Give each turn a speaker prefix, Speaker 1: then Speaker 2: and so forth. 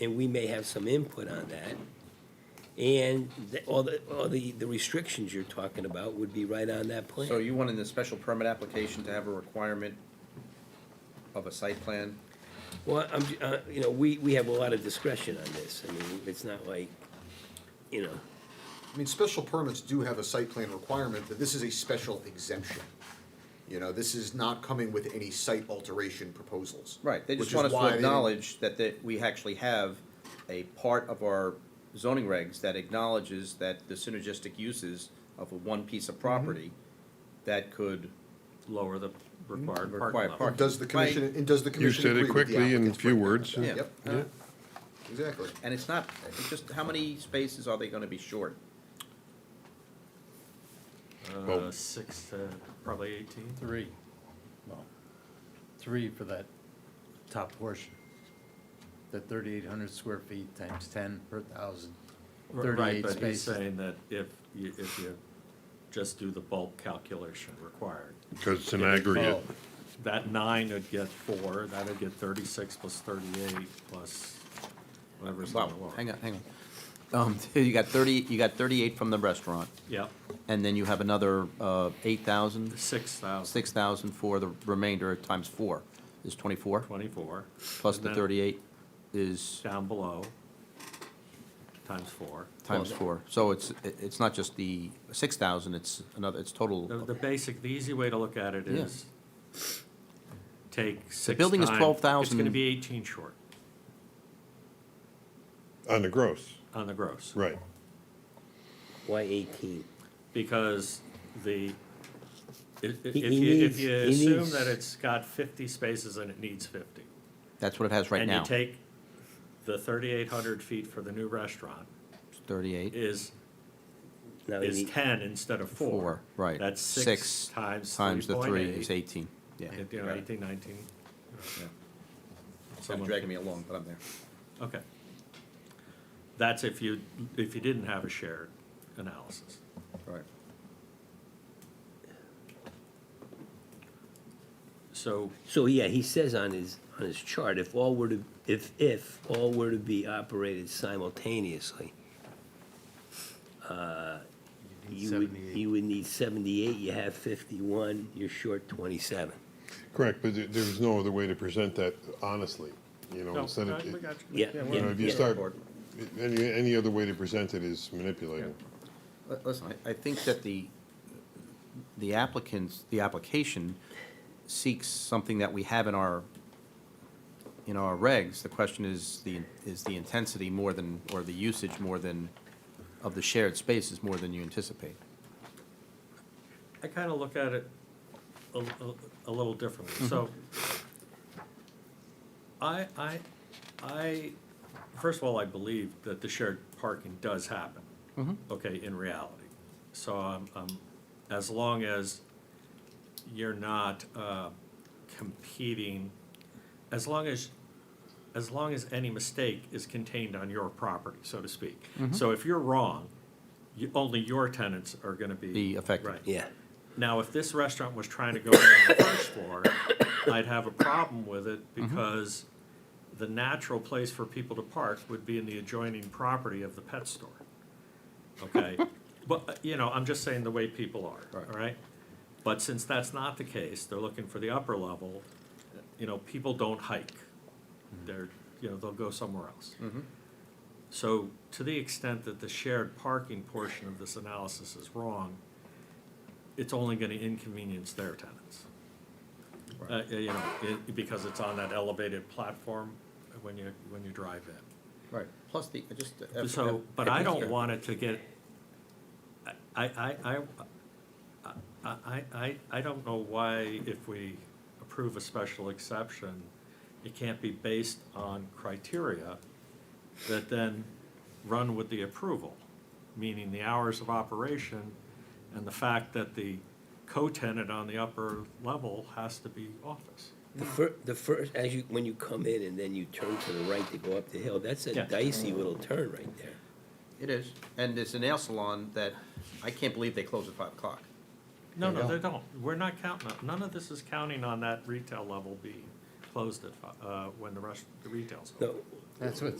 Speaker 1: and we may have some input on that. And the- all the, all the, the restrictions you're talking about would be right on that
Speaker 2: So
Speaker 1: plan.
Speaker 2: you want in the special permit application to have a requirement of a site plan?
Speaker 1: Well, I'm, ju- uh, you know, we, we have a lot of discretion on this. I mean, it's not like, you know,
Speaker 3: I mean, special permits do have a site plan requirement, but this is a special exemption. You know, this is not coming with any site alteration proposals.
Speaker 2: Right, they
Speaker 3: which
Speaker 2: just want us
Speaker 3: is why
Speaker 2: to
Speaker 3: they didn't-
Speaker 2: acknowledge that, that we actually have a part of our zoning regs that acknowledges that the synergistic uses of a one piece of property that could,
Speaker 4: lower the required parking
Speaker 2: Required
Speaker 4: level.
Speaker 2: parking.
Speaker 3: Does the commission, and does the
Speaker 5: You
Speaker 3: commission
Speaker 5: said
Speaker 3: agree
Speaker 5: it
Speaker 3: with the
Speaker 5: quickly in
Speaker 3: applicant's
Speaker 5: few words.
Speaker 3: recommendation?
Speaker 5: and-
Speaker 2: yep.
Speaker 5: Yeah.
Speaker 3: Exactly.
Speaker 2: Uh, And it's not, it's just, how many spaces are they gonna be short?
Speaker 5: Well-
Speaker 4: Uh, six to probably eighteen.
Speaker 6: Three. Well, three for that top portion. The thirty-eight hundred square feet times ten per thousand,
Speaker 4: R- Right,
Speaker 6: thirty-eight
Speaker 4: but he's
Speaker 6: spaces.
Speaker 4: saying that if you, if you just do the bulk calculation required,
Speaker 5: Because it's an aggregate.
Speaker 6: Oh,
Speaker 4: that nine would get four, that'd get thirty-six plus thirty-eight plus whatever's on
Speaker 2: Wow,
Speaker 4: the wall.
Speaker 2: hang on, hang on. Um, you got thirty, you got thirty-eight from the restaurant,
Speaker 4: Yep,
Speaker 2: and then you have another, uh, eight thousand?
Speaker 4: six thousand
Speaker 2: six thousand for the remainder times four is twenty-four,
Speaker 4: twenty-four.
Speaker 2: plus
Speaker 4: and
Speaker 2: the
Speaker 4: then
Speaker 2: thirty-eight is
Speaker 4: Down below, times four.
Speaker 2: times four. So it's, it- it's not just the six thousand, it's another, it's total.
Speaker 4: The, the basic, the easy way to look at it
Speaker 2: Yeah.
Speaker 4: is take six
Speaker 2: building is
Speaker 4: time- It's
Speaker 2: 12,000.
Speaker 4: gonna be eighteen short
Speaker 5: On the gross,
Speaker 4: on the gross.
Speaker 5: right.
Speaker 1: why eighteen?
Speaker 4: because the, if, if
Speaker 1: He- he
Speaker 4: you, if
Speaker 1: needs-
Speaker 4: you
Speaker 1: he
Speaker 4: assume
Speaker 1: needs-
Speaker 4: that it's got fifty spaces and it needs fifty.
Speaker 2: That's what it has right
Speaker 4: And you
Speaker 2: now,
Speaker 4: take the thirty-eight hundred feet for the new restaurant
Speaker 2: thirty-eight,
Speaker 4: is,
Speaker 1: Now, you
Speaker 4: is
Speaker 1: need-
Speaker 4: ten instead of four.
Speaker 2: four, right.
Speaker 4: That's six times three
Speaker 2: Times the
Speaker 4: point
Speaker 2: three is
Speaker 4: eight.
Speaker 2: eighteen, yeah.
Speaker 4: You know, eighteen, nineteen.
Speaker 2: It's dragging me along, but I'm there.
Speaker 4: Okay. That's if you, if you didn't have a shared analysis.
Speaker 2: Right.
Speaker 4: So
Speaker 1: So, yeah, he says on his, on his chart, if all were to, if, if all were to be operated simultaneously, uh, you would,
Speaker 6: 78.
Speaker 1: you would need seventy-eight, you have fifty-one, you're short twenty-seven.
Speaker 5: Correct, but there there was no other way to present that honestly, you know,
Speaker 4: No,
Speaker 5: instead
Speaker 4: I-
Speaker 5: of,
Speaker 4: we
Speaker 5: you
Speaker 4: got you.
Speaker 1: Yeah, yeah.
Speaker 5: know, if you
Speaker 1: Yeah.
Speaker 5: start, any, any other way to present it is manipulating.
Speaker 2: Li- Listen, I, I think that the, the applicants, the application seeks something that we have in our, in our regs. The question is the, is the intensity more than, or the usage more than, of the shared spaces more than you anticipate.
Speaker 4: I kind of look at it a, a- a little differently, so.
Speaker 2: Mm-hmm.
Speaker 4: I, I, I, first of all, I believe that the shared parking does happen.
Speaker 2: Mm-hmm.
Speaker 4: Okay, in reality, so I'm, I'm, as long as you're not, uh, competing, as long as, as long as any mistake is contained on your property, so to speak.
Speaker 2: Mm-hmm.
Speaker 4: So if you're wrong, you, only your tenants are gonna be.
Speaker 2: Be affected.
Speaker 4: Right.
Speaker 1: Yeah,
Speaker 4: Now, if this restaurant was trying to go in on the first floor, I'd have a problem with it because the natural place for people to park would be in the adjoining property of the pet store. Okay? But, uh, you know, I'm just saying the way people are, all right? But since that's not the case, they're looking for the upper level, uh, you know, people don't hike. They're, you know, they'll go somewhere else. So to the extent that the shared parking portion of this analysis is wrong, it's only gonna inconvenience their tenants. Uh, you know, it, because it's on that elevated platform when you, when you drive in.
Speaker 2: Right, plus the, I just. uh,
Speaker 4: So, but I don't want it to get, I, I, I, I- I, I, I don't know why if we approve a special exception, it can't be based on criteria that then run with the approval, meaning the hours of operation and the fact that the co-tenant on the upper level has to be office.
Speaker 1: the fir, the first, as you, when you come in and then you turn to the right to go up the hill, that's a
Speaker 4: Yeah.
Speaker 1: dicey little turn right there.
Speaker 2: It is, and it's a nail salon that, I can't believe they close at five o'clock.
Speaker 4: No,
Speaker 6: They
Speaker 4: no, they don't. We're not counting, on- none of this is counting on that retail level being closed at, fi- uh, when the rest, the retail's open.
Speaker 1: No,
Speaker 6: That's what